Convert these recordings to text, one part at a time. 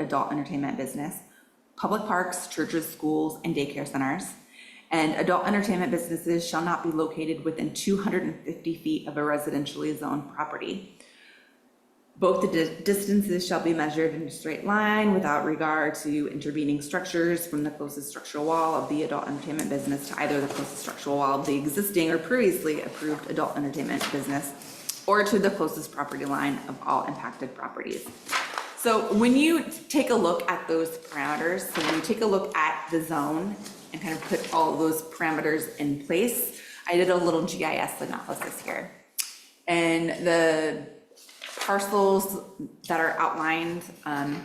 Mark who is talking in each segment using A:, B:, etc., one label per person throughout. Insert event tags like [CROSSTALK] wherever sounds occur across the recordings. A: adult entertainment business, public parks, churches, schools, and daycare centers. And adult entertainment businesses shall not be located within 250 feet of a residentially zoned property. Both the di- distances shall be measured in a straight line without regard to intervening structures from the closest structural wall of the adult entertainment business to either the closest structural wall of the existing or previously approved adult entertainment business or to the closest property line of all impacted properties. So when you take a look at those parameters, so when you take a look at the zone and kind of put all those parameters in place, I did a little GIS analysis here. And the parcels that are outlined um,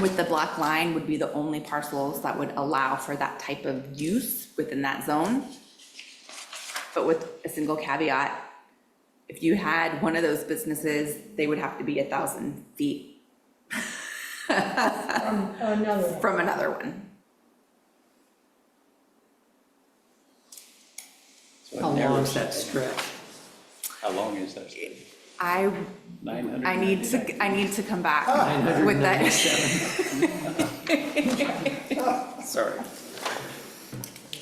A: with the black line would be the only parcels that would allow for that type of use within that zone. But with a single caveat, if you had one of those businesses, they would have to be a thousand feet
B: Another one.
A: from another one.
C: How long is that stretch?
D: How long is that?
A: I,
D: Nine hundred?
A: I need to, I need to come back with that. [LAUGHS]
C: 997. Sorry.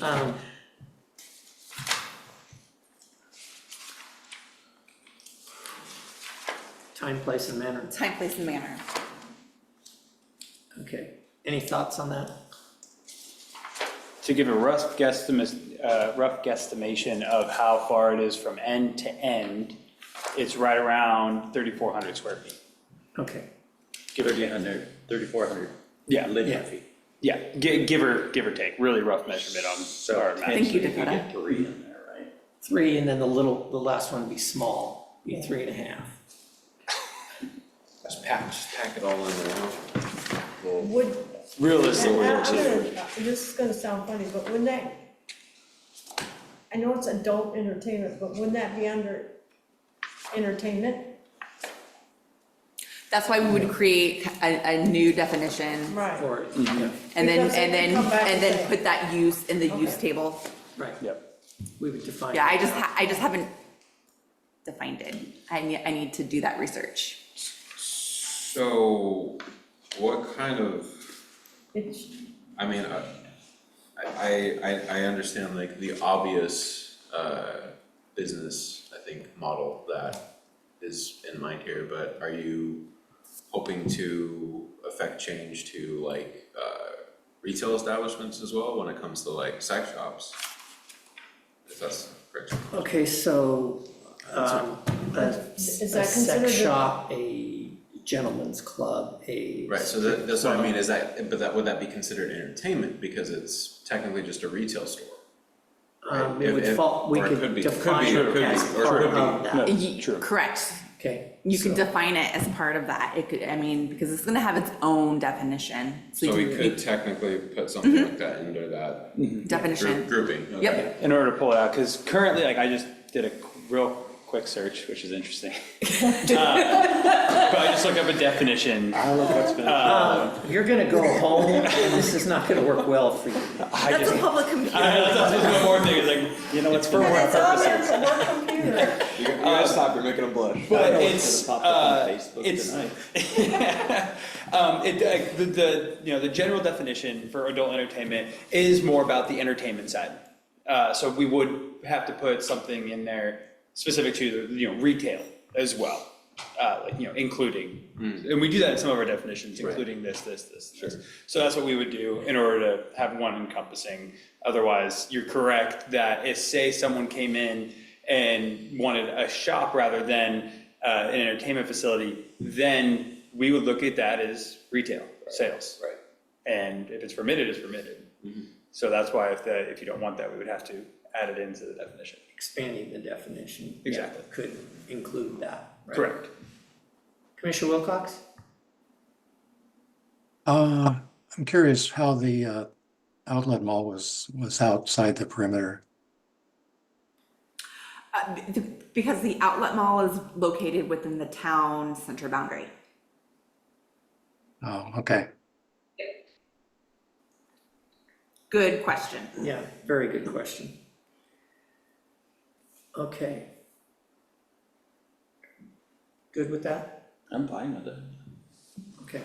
C: Um, Time, place, and manner.
A: Time, place, and manner.
C: Okay. Any thoughts on that?
D: To give a rough guesstimate, uh, rough guesstimation of how far it is from end to end, it's right around thirty-four hundred square feet.
C: Okay.
E: Give or take under 3,400.
D: Yeah.
E: Linear
C: Yeah.
E: feet.
D: Yeah, gi- give or, give or take, really rough measurement on
E: So
D: our map.
A: Thank you,
E: potentially
A: Dakota.
E: could get three in there, right?
C: Three, and then the little, the last one would be small, be three and a half.
F: Just pack, just pack it all in there. Well,
B: Would,
D: Realistic,
B: and I- I'm gonna, this is gonna sound funny, but wouldn't that, I know it's adult entertainment, but wouldn't that be under entertainment?
A: That's why we would create a, a new definition
B: Right.
C: Or, yeah,
A: and then,
B: Because they
A: and
B: can
A: then,
B: come back
A: and
B: and
A: then
B: say-
A: put that use in the use
B: Okay.
A: table.
C: right,
D: yep.
C: we would define.
A: Yeah, I
C: it.
A: just, ha- I just haven't defined it. I need, I need to do that research.
F: So what kind of,
B: It's,
F: I mean, I, I, I, I understand like the obvious, uh, business, I think, model that is in mind here, but are you hoping to affect change to like, uh, retail establishments as well when it comes to like sex shops? If that's correct.
C: Okay, so, um, a, a
B: Is that considered
C: sex
B: a-
C: shop, a gentleman's club, a.
F: Right, so that, that's what I mean, is that, but that, would that be considered entertainment, because it's technically just a retail store? right,
C: Um, it
F: if-
C: would
F: if-
C: fall, we
F: or it could
C: could
F: be- could be,
C: define
F: or
C: it
F: could be,
C: as
F: or
C: part
F: could be.
C: of that,
A: Y-
D: True.
A: Correct.
C: okay?
A: You could
C: so-
A: define it as part of that. It could, I mean, because it's gonna have its own definition.
F: So
A: you
F: we
A: can-
F: could technically put something like that into that
A: Definition.
F: group, grouping, okay.
A: Yep,
D: In order to pull it out, because currently, like, I just did a qu- real quick search, which is [LAUGHS] interesting. Uh, But I just looked up a definition. I look up
C: Um, You're gonna go home, and this is not gonna work well for you.
D: I
A: that's
D: just,
A: a
D: I,
A: public computer.
D: [LAUGHS] that's that's one more thing, it's like, you know, it's for
B: and
D: work
B: it's on there
D: purposes.
B: for work [LAUGHS] computer.
E: You gotta stop, you're making a blush.
D: But it's, uh, it's, [LAUGHS] um, it, uh, the, the, you know, the general definition for adult entertainment is more about the entertainment side. Uh, so we would have to put something in there specific to, the you know, retail as well. Uh, like, you know, including,
E: Hmm.
D: and we do that in some of our definitions, including this, this, this, this. So that's what we would do in order to have one encompassing. Otherwise, you're correct that if, say, someone came in and wanted a shop rather than uh, an entertainment facility, then we would look at that as retail sales.
E: Right.
D: And if it's permitted, it's permitted. So that's why if the, if you don't want that, we would have to add it into the definition.
C: Expanding the definition. yeah,
D: Exactly.
C: Could include that, right?
D: Correct.
C: Commissioner Wilcox?
G: Uh, I'm curious how the uh, outlet mall was, was outside the perimeter.
A: Uh, b- th- Because the outlet mall is located within the town center boundary.
G: Oh, okay.
A: Good question.
C: Yeah, very good question. Okay. Good with that?
E: I'm fine with it.
C: Okay.